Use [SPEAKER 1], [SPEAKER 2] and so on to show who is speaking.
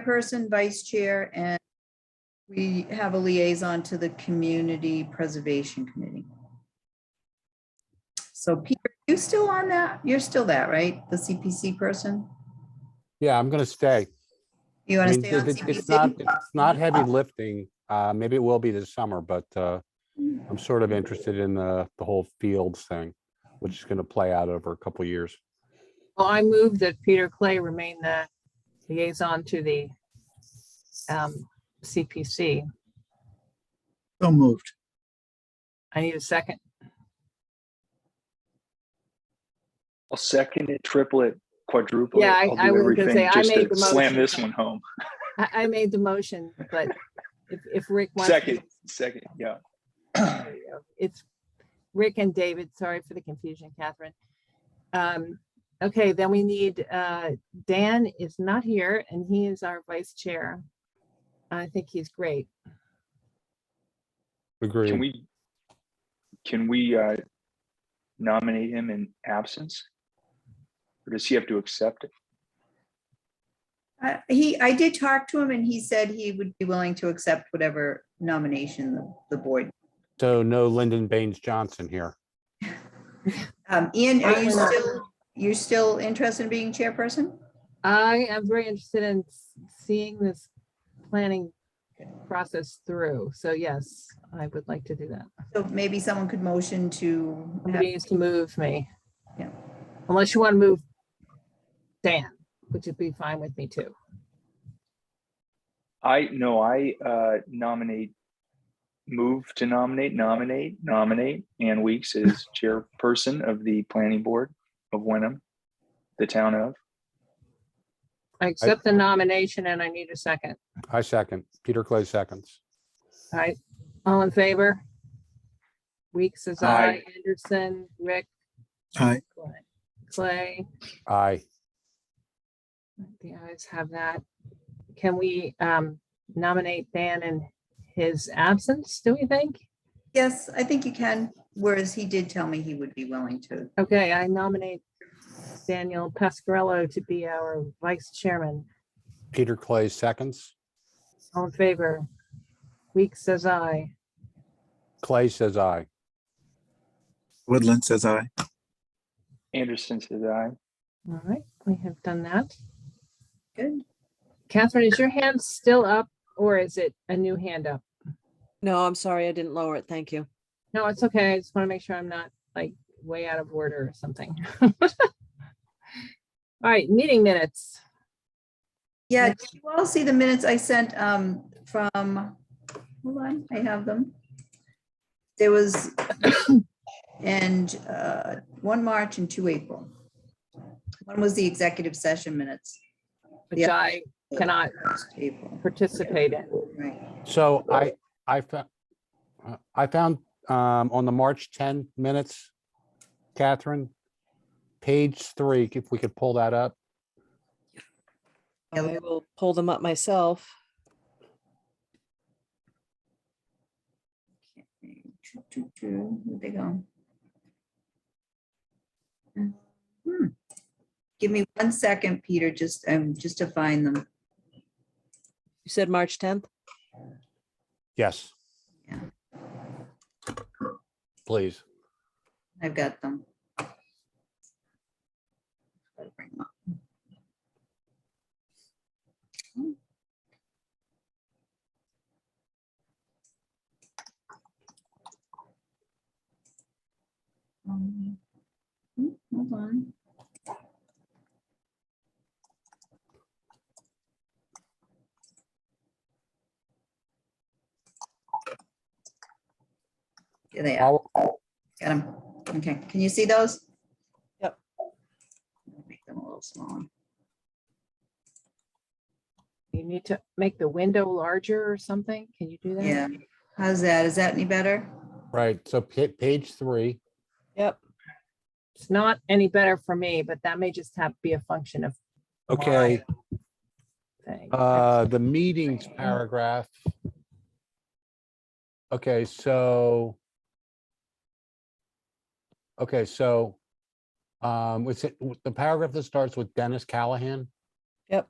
[SPEAKER 1] chairperson, vice chair, and we have a liaison to the Community Preservation Committee. So Peter, you still on that? You're still that, right? The CPC person?
[SPEAKER 2] Yeah, I'm gonna stay.
[SPEAKER 1] You
[SPEAKER 2] I
[SPEAKER 1] want to
[SPEAKER 2] mean,
[SPEAKER 1] stay on
[SPEAKER 2] it- it- It's not,
[SPEAKER 1] CPC?
[SPEAKER 2] it's not heavy lifting. Uh, maybe it will be this summer, but, uh, I'm sort of interested in the, the whole fields thing, which is gonna play out over a couple years.
[SPEAKER 3] Well, I move that Peter Clay remain the liaison to the um, CPC.
[SPEAKER 4] So moved.
[SPEAKER 3] I need a second.
[SPEAKER 5] I'll second it, triple it, quadruple it.
[SPEAKER 3] Yeah, I-
[SPEAKER 5] I'll
[SPEAKER 3] I
[SPEAKER 5] do
[SPEAKER 3] was gonna say,
[SPEAKER 5] everything
[SPEAKER 3] I
[SPEAKER 5] just
[SPEAKER 3] made
[SPEAKER 5] to
[SPEAKER 3] the
[SPEAKER 5] Slam
[SPEAKER 3] motion.
[SPEAKER 5] this one home.
[SPEAKER 3] I, I made the motion, but if, if Rick wants. to-
[SPEAKER 5] Second, second, yeah.
[SPEAKER 3] there you go. It's Rick and David. Sorry for the confusion, Catherine. Um, okay, then we need, uh, Dan is not here and he is our vice chair. I think he's great.
[SPEAKER 5] Can
[SPEAKER 2] Agreed.
[SPEAKER 5] we, can we uh nominate him in absence? Or does he have to accept it?
[SPEAKER 1] Uh, He, I did talk to him and he said he would be willing to accept whatever nomination the, the board.
[SPEAKER 2] So no Lyndon Baines Johnson here.
[SPEAKER 1] Um, Ian, are you
[SPEAKER 3] Why not?
[SPEAKER 1] still, you're still interested in being chairperson?
[SPEAKER 3] I am very interested in s- seeing this planning process through. So yes, I would like to do that.
[SPEAKER 1] So maybe someone could motion to. have-
[SPEAKER 3] Somebody needs to move me.
[SPEAKER 1] Yeah.
[SPEAKER 3] Unless you want to move Dan, which would be fine with me too.
[SPEAKER 5] I, no, I uh nominate, move to nominate, nominate, nominate Ann Weeks as chairperson of the planning board of Wenham, the town of.
[SPEAKER 3] I accept the nomination and I need a second.
[SPEAKER 2] I second. Peter Clay seconds.
[SPEAKER 3] All right, all in favor? Weeks is I,
[SPEAKER 5] Aye.
[SPEAKER 3] Anderson, Rick,
[SPEAKER 4] Aye.
[SPEAKER 3] Clay,
[SPEAKER 2] Aye.
[SPEAKER 3] the ayes have that. Can we um, nominate Dan in his absence, do we think?
[SPEAKER 1] Yes, I think you can, whereas he did tell me he would be willing to.
[SPEAKER 3] Okay, I nominate Daniel Pascarello to be our vice chairman.
[SPEAKER 2] Peter Clay seconds.
[SPEAKER 3] All in favor? Weeks says I.
[SPEAKER 2] Clay says aye.
[SPEAKER 4] Woodland says aye.
[SPEAKER 5] Anderson says aye.
[SPEAKER 3] All right, we have done that.
[SPEAKER 1] Good.
[SPEAKER 3] Catherine, is your hand still up or is it a new hand up?
[SPEAKER 6] No, I'm sorry, I didn't lower it. Thank you.
[SPEAKER 3] No, it's okay. I just want to make sure I'm not like way out of order or something. All right, meeting minutes.
[SPEAKER 1] Yeah, did you all see the minutes I sent um from, hold on, I have them. There was and uh one March and two April. One was the executive session minutes.
[SPEAKER 3] Which
[SPEAKER 1] Yeah.
[SPEAKER 3] I cannot
[SPEAKER 1] April,
[SPEAKER 3] participate in.
[SPEAKER 1] right.
[SPEAKER 2] So I, I found, I found, um, on the March ten minutes, Catherine, page three, if we could pull that up.
[SPEAKER 1] Yeah,
[SPEAKER 6] I will pull them up myself.
[SPEAKER 1] Where'd they go? Hmm. Give me one second, Peter, just um just to find them.
[SPEAKER 6] You said March 10th?
[SPEAKER 2] Yes.
[SPEAKER 1] Yeah.
[SPEAKER 2] Please.
[SPEAKER 1] I've got them. Gotta bring 'em up. Um, hmm, Hold on. Here they are.
[SPEAKER 2] I'll-
[SPEAKER 1] Got them. Okay, can you see those?
[SPEAKER 6] Yep.
[SPEAKER 1] Make them a little smaller.
[SPEAKER 3] You need to make the window larger or something. Can you do that?
[SPEAKER 1] Yeah. How's that? Is that any better?
[SPEAKER 2] Right, so pa- page three,
[SPEAKER 6] Yep.
[SPEAKER 3] It's not any better for me, but that may just have be a function of
[SPEAKER 2] okay,
[SPEAKER 3] thing.
[SPEAKER 2] uh, the meetings paragraph. Okay, so. Okay, so, um, it's, the paragraph that starts with Dennis Callahan.
[SPEAKER 6] Yep.